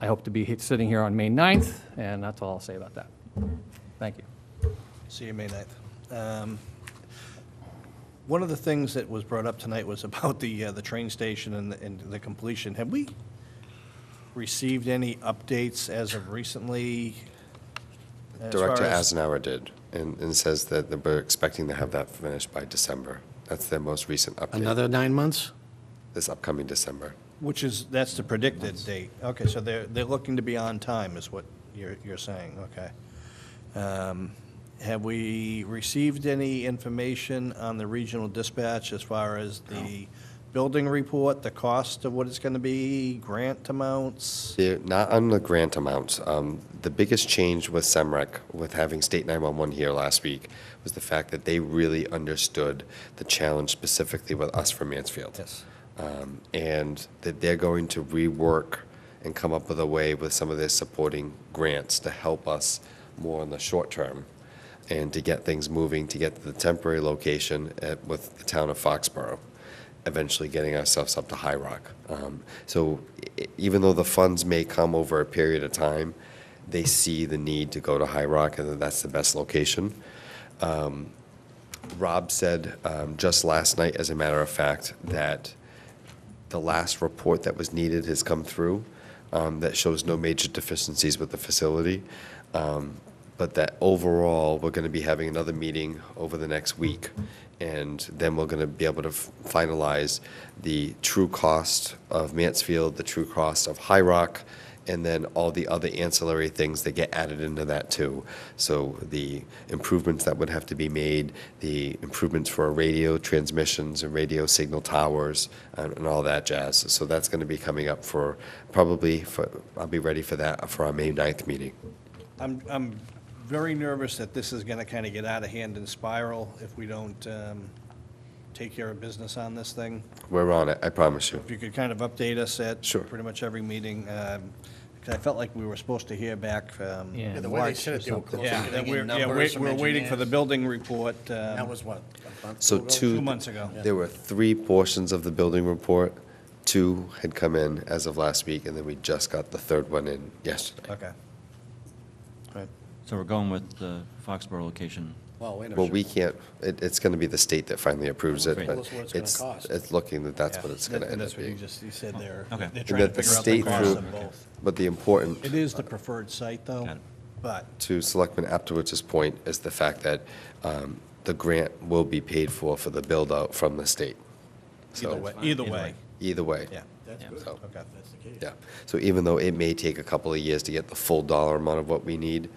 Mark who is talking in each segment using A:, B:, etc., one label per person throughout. A: I hope to be he- sitting here on May 9th, and that's all I'll say about that. Thank you.
B: See you May 9th. Um, One of the things that was brought up tonight was about the, uh, the train station and the- and the completion. Have we received any updates as of recently? as
C: Director
B: far as-
C: Asenauer did, and, and says that they we're expecting to have that finished by December. That's their most recent update.
D: Another nine months?
C: This upcoming December.
B: Which is, that's the predicted date. Okay, so they're, they're looking to be on time, is what you're, you're saying, okay. Um, Have we received any information on the regional dispatch as far as the building report, the cost of what it's gonna be, grant amounts?
C: They're not on the grant amount. Um, the biggest change with SEMREC, with having State 911 here last week, was the fact that they really understood the challenge specifically with us from Mansfield.
B: Yes.
C: um, and that they're going to rework and come up with a way with some of their supporting grants to help us more in the short term and to get things moving, to get to the temporary location at, with the town of Foxborough, eventually getting ourselves up to High Rock. Um, so e- even though the funds may come over a period of time, they see the need to go to High Rock and that that's the best location. Um, Rob said um, just last night, as a matter of fact, that the last report that was needed has come through um, that shows no major deficiencies with the facility. Um, But that overall, we're going to be having another meeting over the next week. And then we're going to be able to f- finalize the true cost of Mansfield, the true cost of High Rock, and then all the other ancillary things that get added into that too. So the improvements that would have to be made, the improvements for radio transmissions and radio signal towers and, and all that jazz. So that's going to be coming up for probably for, I'll be ready for that for our May 9th meeting.
B: I'm, I'm very nervous that this is gonna kinda get out of hand and spiral if we don't, um, take care of business on this thing.
C: We're on it, I promise you.
B: If you could kind of update us at
C: Sure.
B: pretty much every meeting, because I felt like we were supposed to hear back. um,
A: Yeah,
E: the way they said it, they were close to
B: that
E: getting
B: we're- Yeah,
E: numbers
B: we're
E: from
B: we're waiting for the
E: engineers.
B: building report. um,
E: That was what? a month
C: So
E: ago?
C: two.
B: Two months ago.
C: There were three portions of the building report. Two had come in as of last week, and then we just got the third one in yesterday.
B: Okay. Right.
F: So we're going with the Foxborough location.
E: Well, wait a minute.
C: Well, we can't, it, it's gonna be the state that finally approves it,
F: Right.
C: but
E: Tell us what it's gonna
C: it's,
E: cost.
C: it's looking that that's
B: Yeah.
C: what it's
B: That-
C: gonna end
B: That's
C: up
B: what you
C: being.
B: just, you said there.
F: Okay.
B: They're
F: And
B: trying to
C: that the
B: figure out the
C: state
B: cost
C: through-
B: of both.
C: But the important,
B: It is the preferred site, though,
F: Got it.
B: but
C: to Selectman Aptowicz's point, is the fact that, um, the grant will be paid for, for the build-out from the state. So,
B: either way, either
F: Either
B: way,
F: way.
C: Either way.
B: yeah.
C: So,
B: Okay.
C: yeah. So even though it may take a couple of years to get the full dollar amount of what we need,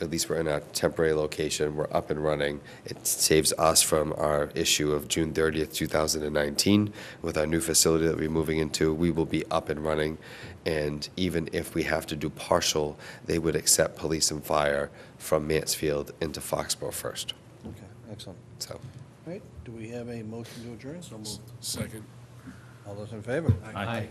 C: at least we're in a temporary location, we're up and running. It saves us from our issue of June 30th, 2019. With our new facility that we're moving into, we will be up and running. And even if we have to do partial, they would accept police and fire from Mansfield into Foxborough first.
B: Okay, excellent.
C: So
B: All right, do we have a motion to adjourn?
E: So moved.
B: All those in favor?
A: Aye.